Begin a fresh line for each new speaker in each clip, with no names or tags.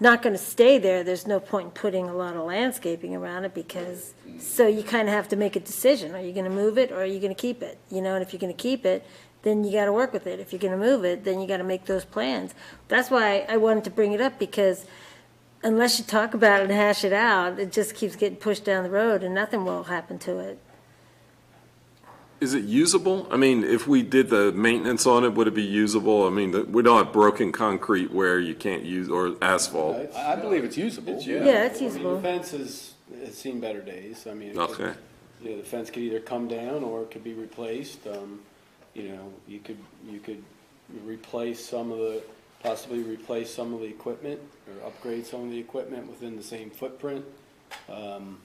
not gonna stay there, there's no point in putting a lot of landscaping around it because, so you kinda have to make a decision. Are you gonna move it or are you gonna keep it? You know, and if you're gonna keep it, then you gotta work with it. If you're gonna move it, then you gotta make those plans. That's why I wanted to bring it up because unless you talk about it and hash it out, it just keeps getting pushed down the road and nothing will happen to it.
Is it usable? I mean, if we did the maintenance on it, would it be usable? I mean, that- we don't have broken concrete where you can't use, or asphalt.
I I believe it's usable.
It's usable.
Yeah, it's
I mean,
usable.
The fence has, has seen better days, I mean. it could-
Okay.
You know, the fence could either come down or it could be replaced, um, you know, you could, you could replace some of the, possibly replace some of the equipment, or upgrade some of the equipment within the same footprint. Um,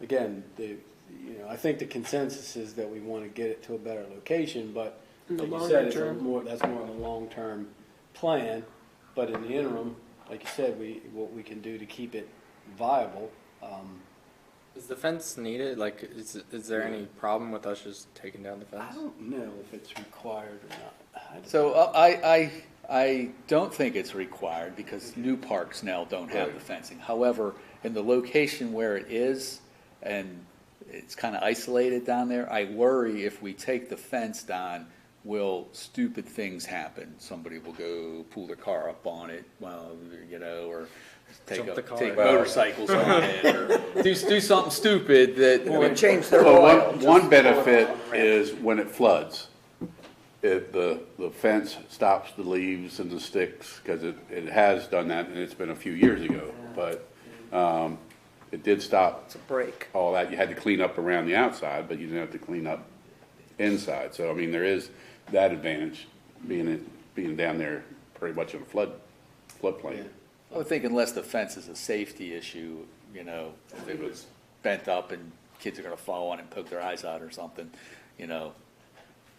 again, the, you know, I think the consensus is that we wanna get it to a better location, but like you said, it's a more, that's more of a long-term plan, but in the interim, like you said, we, what we can do to keep it viable, um,
Is the fence needed? Like, is, is there any problem with us just taking down the
I
fence?
don't know if it's required or not. I just-
So uh, I, I, I don't think it's required because new parks now don't have the fencing. However, in the location where it is and it's kind of isolated down there, I worry if we take the fence down, will stupid things happen? Somebody will go pull their car up on it, well, you know, or take,
Jump
a-
the car.
take
Well-
motorcycles on it or do, do something stupid that.
change their
So
oil.
one, one benefit is when it floods, it, the, the fence stops the leaves and the sticks, because it, it has done that, and it's been a few years ago, but, um, it did stop
It's a break.
all that. You had to clean up around the outside, but you didn't have to clean up inside. So, I mean, there is that advantage, being, it- being down there pretty much in a flood, floodplain.
I would think unless the fence is a safety issue, you know, if it was bent up and kids are gonna fall on it and poke their eyes out or something, you know,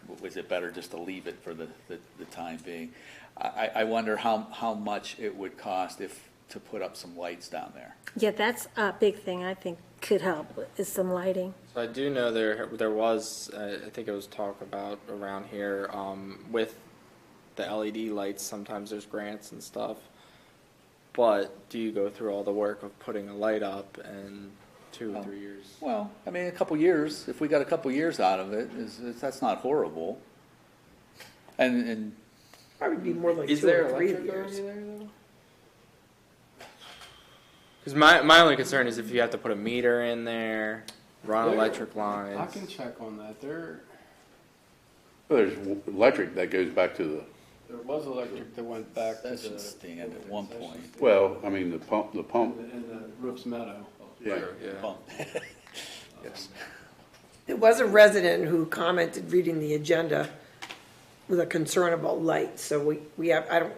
w- was it better just to leave it for the, the, the time being? I, I- I wonder how, how much it would cost if, to put up some lights down there.
Yeah, that's a big thing I think could help, is some lighting.
So I do know there, there was, uh, I think it was talk about around here, um, with the LED lights, sometimes there's grants and stuff. But do you go through all the work of putting a light up and
Oh.
two or three years?
Well, I mean, a couple years, if we got a couple years out of it, is, is, that's not horrible. And, and
Probably be more like
Is
two
there
or three
electric over
years.
there though? Cause my, my only concern is if you have to put a meter in there, run
There-
electric
I can
lines.
check on that. There,
There's w- electric that goes back to the
there was electric that went back to the.
Concession stand at one point.
Well, I mean, the pump, the pump,
In the Roof's Meadow.
yeah.
Yeah.
Well, yes.
There was a resident who commented reading the agenda with a concern about light, so we, we have, I don't,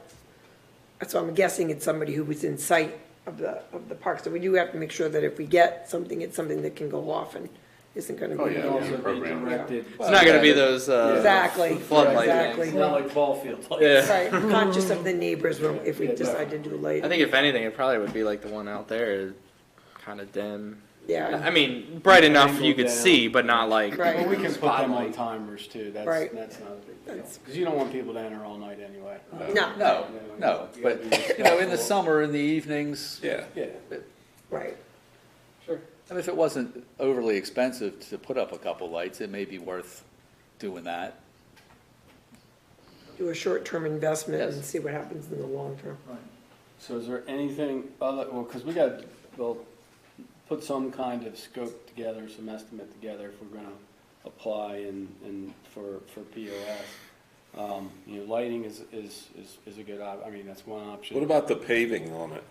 so I'm guessing it's somebody who was in sight of the, of the park, so we do have to make sure that if we get something, it's something that can go off and isn't gonna be.
Oh, yeah,
It also
yeah,
be
program.
directed-
It's not gonna be those, uh.
Exactly,
Floodlight
exactly.
It's not like ball field lights.
Yeah.
Right, conscious of the neighbors when- if we decide to do light.
I think if anything, it probably would be like the one out there, kind of dim. I
Yeah,
mean, bright enough you
Angled
could
down.
see, but not like.
Right.
Well, we can put them on timers too. That's,
Right.
that's not a big deal.
That's-
Cause you don't want people to enter all night anyway.
Uh-huh.
no,
No, no, but, you know, in the summer, in the evenings,
Yeah.
Yeah.
right.
And if it wasn't overly expensive to put up a couple lights, it may be worth doing that.
Do a short-term investment and
Yes.
see what happens in the long term.
So is there anything other, well, because we got, well, put some kind of scope together, some estimate together if we're gonna apply and, and for, for POS. Um, you know, lighting is, is, is, is a good op, I mean, that's one option.
What about the paving on it?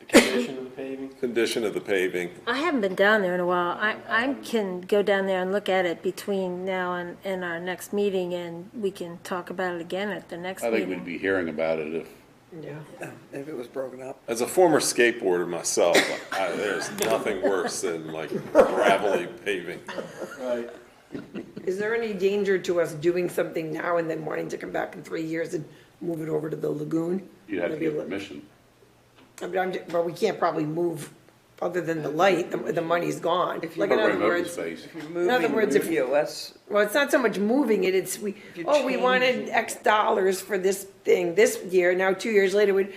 The condition of the paving?
Condition of the paving?
I haven't been down there in a while. I, I can go down there and look at it between now and, and our next meeting, and we can talk about it again at the next
I think we'd
meeting.
be hearing about it if
Yeah.
If it was broken up. As a former skateboarder myself, I, there's nothing worse than like gravelly paving.
Right.
Is there any danger to us doing something now and then wanting to come back in three years and move it over to the lagoon?
you'd have to
Maybe
get
li-
permission.
I mean, I'm, ju- but we can't probably move, other than the light, the, the money's gone. Like, in
Program
other
open
words,
space.
in other words, if,
POS,
well, it's not so much moving it, it's, we,
you
oh, we
change
wanted X dollars for this thing this year, now two years later, we,